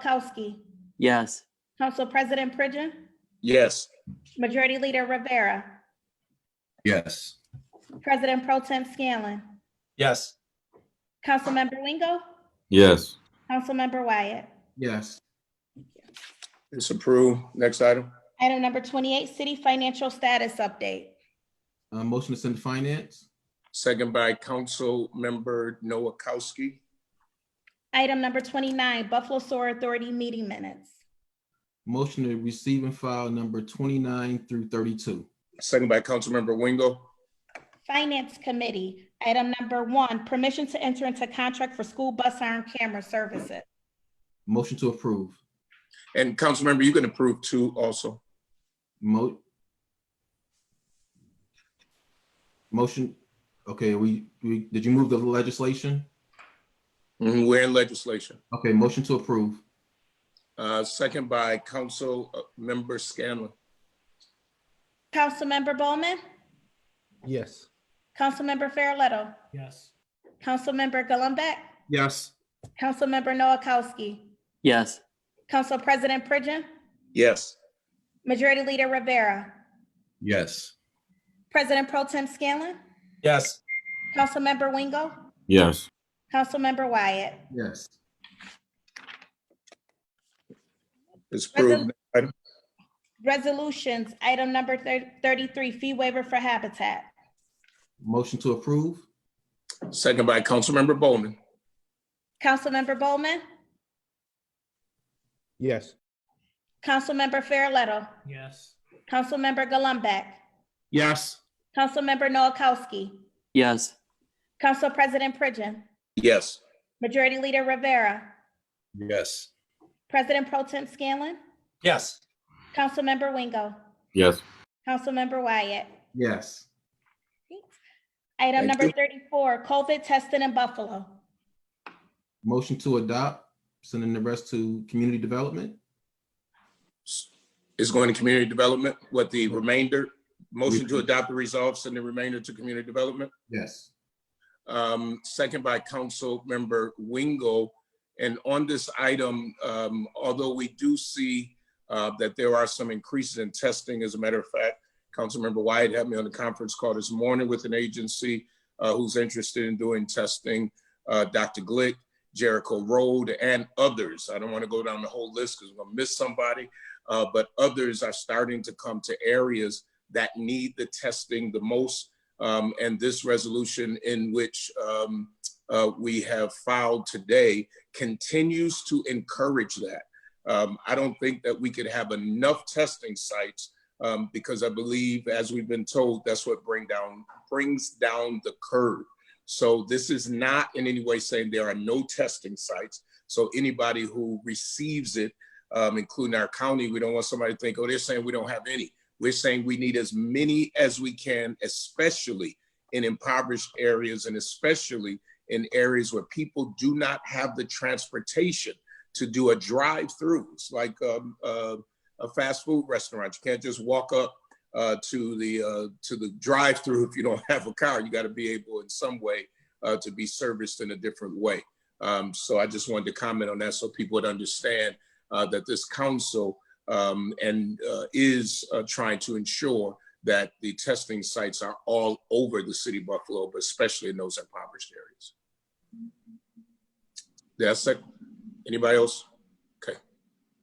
Noakowski, Yes. Council President Pridgen, Yes. Majority Leader Rivera, Yes. President Pro Tem Scanlon, Yes. Councilmember Wingo, Yes. Councilmember Wyatt. Yes. It's approved. Next item. Item number 28, City Financial Status Update. Uh, motion to send to finance? Second by Council Member Noakowski. Item number 29, Buffalo Sewer Authority Meeting Minutes. Motion to receive and file number twenty-nine through thirty-two. Second by Council Member Wingo. Finance Committee, item number one, permission to enter into contract for school bus arm camera services. Motion to approve. And Council Member, you can approve two also. Mo. Motion, okay, we, we, did you move the legislation? Mhm, We're in legislation. Okay, motion to approve. Uh, Second by Council uh, Member Scanlon. Councilmember Bowman, Yes. Councilmember Farrelletto, Yes. Councilmember Gullumbeck, Yes. Councilmember Noakowski, Yes. Council President Pridgen, Yes. Majority Leader Rivera, Yes. President Pro Tem Scanlon, Yes. Councilmember Wingo, Yes. Councilmember Wyatt. Yes. It's approved. Resolutions, item number thir- 33, fee waiver for Habitat. Motion to approve? Second by Council Member Bowman. Councilmember Bowman, Yes. Councilmember Farrelletto, Yes. Councilmember Gullumbeck, Yes. Councilmember Noakowski, Yes. Council President Pridgen, Yes. Majority Leader Rivera, Yes. President Pro Tem Scanlon, Yes. Councilmember Wingo, Yes. Councilmember Wyatt. Yes. Item Thank number you. 34, COVID testing in Buffalo. Motion to adopt, sending the rest to community development? It's going to Community Development with the remainder. Motion to adopt the results and the remainder to Community Development. Yes. um, second by Council Member Wingo. And on this item, um, although we do see uh, that there are some increases in testing, as a matter of fact, Councilmember Wyatt had me on the conference call this morning with an agency uh, who's interested in doing testing, uh, Dr. Glick, Jericho Road, and others. I don't want to go down the whole list because we're gonna miss somebody, uh, but others are starting to come to areas that need the testing the most um, and this resolution in which um, uh, we have filed today continues to encourage that. Um, I don't think that we could have enough testing sites um, because I believe, as we've been told, that's what bring down brings down the curve. So this is not in any way saying there are no testing sites. So anybody who receives it, um, including our county, we don't want somebody to think, oh, they're saying we don't have any. We're saying we need as many as we can, especially in impoverished areas and especially in areas where people do not have the transportation to do a drive through. It's like um, uh, a fast food restaurant. You can't just walk up uh, to the uh, to the drive through if you don't have a car. You got to be able in some way uh, to be serviced in a different way. Um, so I just wanted to comment on that so people would understand uh, that this council um, and uh, is uh, trying to ensure that the testing sites are all over the city of Buffalo, but especially in those impoverished areas. That's it. Anybody else? Okay.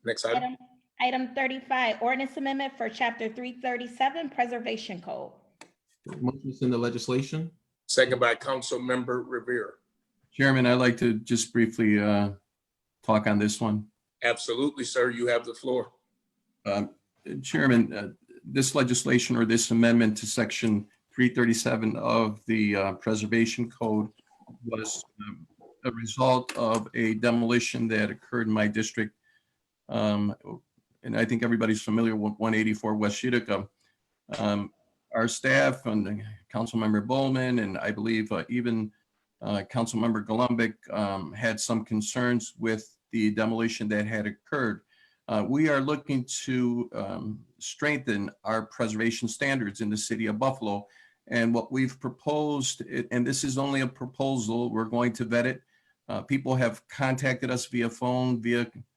Next item. Item- Item 35, ordinance amendment for Chapter 337 Preservation Code. Motion to send the legislation? Second by Council Member Rivera. Chairman, I'd like to just briefly uh, talk on this one. Absolutely, sir. You have the floor. Um, Chairman, uh, this legislation or this amendment to Section 337 of the uh, Preservation Code was um, a result of a demolition that occurred in my district. Um, And I think everybody's familiar with 184 West Utica. Um, Our staff and Councilmember Bowman, and I believe uh, even uh, Councilmember Golumbic um, had some concerns with the demolition that had occurred. Uh, we are looking to um, strengthen our preservation standards in the city of Buffalo. And what we've proposed, i- and this is only a proposal, we're going to vet it. Uh, people have contacted us via phone, via